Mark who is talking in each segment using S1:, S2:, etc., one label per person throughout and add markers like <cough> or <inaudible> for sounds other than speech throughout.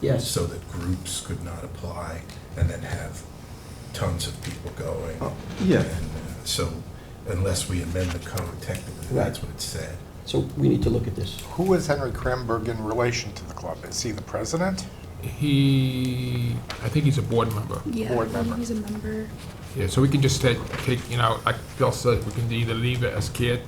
S1: Yes.
S2: So that groups could not apply and then have tons of people going.
S3: Oh, yeah.
S2: And, uh, So unless we amend the code technically, that's what it said.
S1: So we need to look at this.
S4: Who is Henry Kramberg in relation to the club? Is he the president?
S5: He, I think he's a board member.
S6: Yeah,
S4: Board
S6: I think
S4: member.
S6: he's a member.
S5: Yeah, so we can just take, take, you know, like Bill said, we can either leave it as care,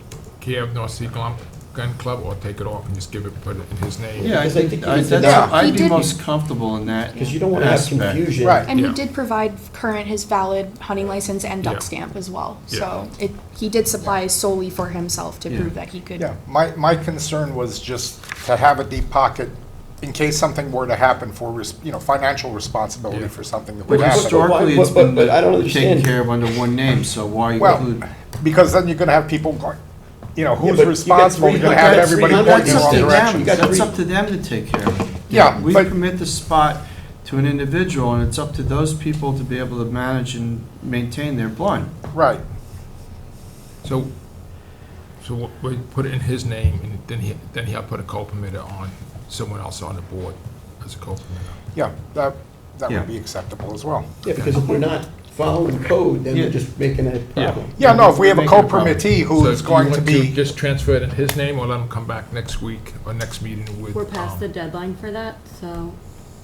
S5: care of North Sea Glum- Gun Club, or take it off and just give it, put it in his name.
S3: Yeah, I
S1: Because I
S3: think,
S1: think
S3: I-
S1: it's-
S3: that's-
S4: Yeah.
S3: I'd
S6: He
S3: be
S6: did-
S3: most comfortable in that
S1: Because you don't want to have
S3: aspect.
S1: confusion.
S4: Right.
S6: And
S5: Yeah.
S6: he did provide current his valid hunting license and
S5: Yeah.
S6: duck stamp as well.
S5: Yeah.
S6: So it, he did supply solely for himself to
S3: Yeah.
S6: prove that he could.
S4: Yeah, my, my concern was just to have a deep pocket in case something were to happen for, res- you know, financial responsibility
S5: Yeah.
S4: for something that would
S3: But
S4: happen.
S3: historically, it's
S1: But- but-
S3: been
S1: but I don't
S3: taken
S1: understand.
S3: care of under one name, so why
S4: Well,
S3: include?
S4: because then you're gonna have people going, you know,
S1: Yeah,
S4: who's
S1: but you got
S4: responsible?
S1: three-
S4: You're gonna
S1: you
S4: have
S1: got
S4: everybody
S1: three
S4: pointing in
S3: That's
S4: the
S1: hundred
S4: wrong
S3: up to them,
S4: direction.
S1: got
S3: that's
S1: three-
S3: up to them to take care of. it.
S4: Yeah,
S3: We
S4: but-
S3: commit the spot to an individual, and it's up to those people to be able to manage and maintain their blind.
S4: Right,
S5: So, so we- we put it in his name, and then he, then he'll put a co-permitter on, someone else on the board as a co-permitter.
S4: yeah, that, that
S3: Yeah.
S4: would be acceptable as well.
S1: Yeah, because if we're not following code, then
S3: Yeah.
S1: we're just making a problem.
S4: Yeah, no, if we have a
S3: Making a problem.
S4: co-permittee
S5: So
S4: who's
S5: do you
S4: going to
S5: want
S4: be,
S5: Just transfer it in his name, or let him come back next week, or next meeting with.
S7: We're past
S5: um,
S7: the deadline for that, so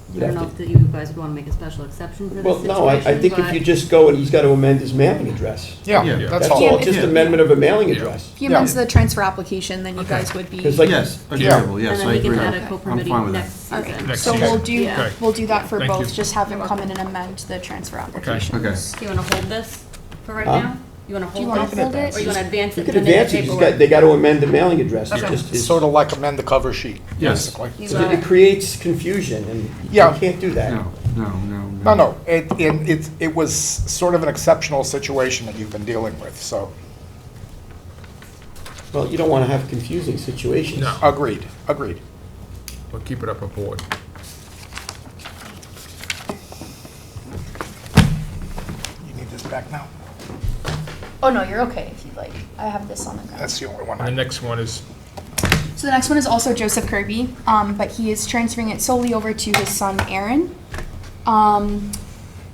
S7: I
S1: You'd
S7: don't
S1: have
S7: know
S1: to-
S7: if that you guys would want to make a special exception for this
S1: Well,
S7: situation,
S1: no, I, I think if
S7: but-
S1: you just go and he's got to amend his mailing address.
S4: yeah,
S3: Yeah.
S4: that's
S1: That's
S4: all.
S1: all, just
S3: Yeah.
S1: amendment of a mailing
S5: Yeah.
S1: address.
S6: If he amends
S4: Yeah.
S6: the transfer application, then you
S5: Okay.
S6: guys would be.
S1: Because like,
S3: Yes, agreeable, yes, I
S7: And then we
S3: agree.
S7: can add
S6: Okay.
S7: a
S6: I'm
S7: co-permitting
S3: fine with that.
S7: next
S6: All
S7: season.
S6: right,
S5: Next
S6: so we'll
S5: season.
S6: do,
S5: Okay.
S6: we'll do that for
S5: Thank
S6: both,
S5: you.
S6: just have him come in and amend the transfer application.
S3: Okay,
S7: Do you want to hold this for right
S1: Huh?
S7: now? You want to
S6: Do you
S7: hold
S6: want
S7: this?
S6: to hold it?
S7: Or you want to advance
S1: you
S7: it
S1: could
S7: and then
S1: advance
S7: the
S1: it, you just got,
S7: paperwork?
S1: they got to amend the mailing address. It just is-
S4: Sort of like amend the cover sheet,
S3: Yes.
S4: basically.
S7: You
S1: So that
S7: got
S1: it
S7: it.
S1: creates confusion, and you
S4: Yeah.
S1: can't do that.
S3: no, no, no,
S4: No, no, it, it, it- it was sort of an exceptional situation that you've been dealing with, so,
S1: Well, you don't want to have confusing situations.
S5: No.
S4: agreed, agreed.
S5: We'll keep it up a board.
S4: You need this back now?
S6: Oh, no, you're okay if you'd like. I have this on the ground.
S4: That's the only one.
S5: And the
S4: I-
S5: next one is,
S6: So the next one is also Joseph Kirby, um, but he is transferring it solely over to his son Aaron. Um,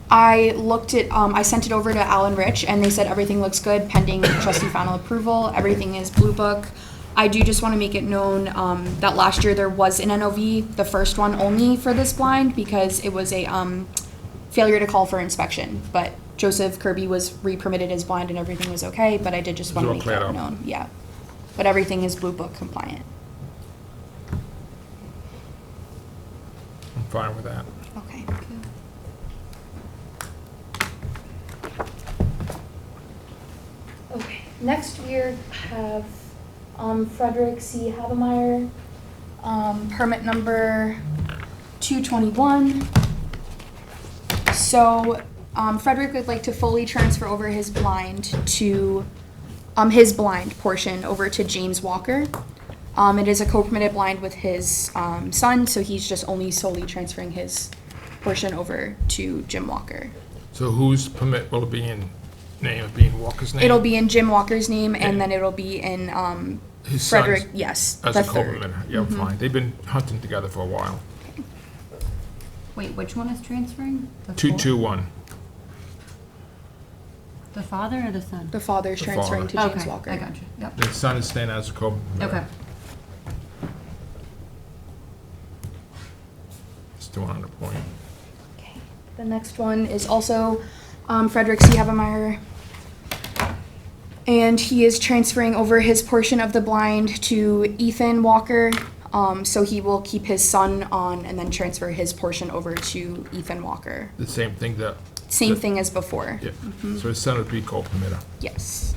S6: I looked at, um, I sent it over to Alan Rich, and they said everything looks good pending
S5: <coughs>
S6: trustee final approval. Everything is blue book. I do just want to make it known um, that last year there was an NOV, the first one only for this blind because it was a um, failure to call for inspection. But Joseph Kirby was re-permitted as blind and everything was okay. But I did just
S5: It's
S6: want to
S5: all
S6: make
S5: cleared
S6: that
S5: up.
S6: known. Yeah, but everything is blue book compliant.
S5: I'm fine with that.
S6: Okay.
S8: Okay, next we are- have um, Frederick C. Habemeyer.
S6: Um, permit number two twenty-one. So, um, Frederick would like to fully transfer over his blind to, um, his blind portion over to James Walker. Um, it is a co-permitted blind with his, um, son, so he's just only solely transferring his portion over to Jim Walker.
S5: So whose permit will it be in name, of being Walker's name?
S6: It'll be in Jim Walker's name,
S5: Okay.
S6: and then it'll be in, um,
S5: His son's-
S6: Frederick, yes,
S5: As
S6: the
S5: a
S6: third.
S5: co-permitter, yeah, fine. They've been hunting together for a while.
S7: Wait, which one is transferring? The
S5: Two,
S7: fa-
S5: two, one.
S7: The father or the son?
S6: The father's
S5: The
S6: transferring to
S5: father.
S6: James
S7: Okay,
S6: Walker.
S7: I got you, yep.
S5: The son is staying as a co-permitter.
S7: Okay.
S5: Still on the point.
S6: Okay. The next one is also um, Frederick C. Havemeyer. And he is transferring over his portion of the blind to Ethan Walker. Um, so he will keep his son on and then transfer his portion over to Ethan Walker.
S5: The same thing that,
S6: Same thing as before.
S5: yeah.
S6: Mm-hmm.
S5: So his son would be co-permitter.
S6: Yes.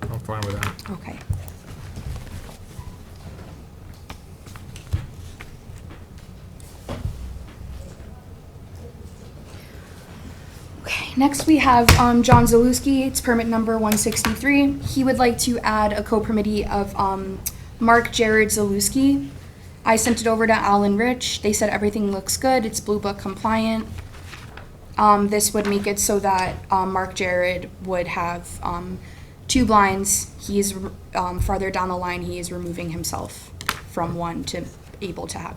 S5: I'm fine with that.
S6: Okay. Okay, next we have um, John Zaluski. It's permit number 163. He would like to add a co-permittee of um, Mark Jared Zaluski. I sent it over to Alan Rich. They said everything looks good. It's Blue Book compliant. Um, this would make it so that um, Mark Jared would have um, two blinds. He is um, farther down the line. He is removing himself from one to able to have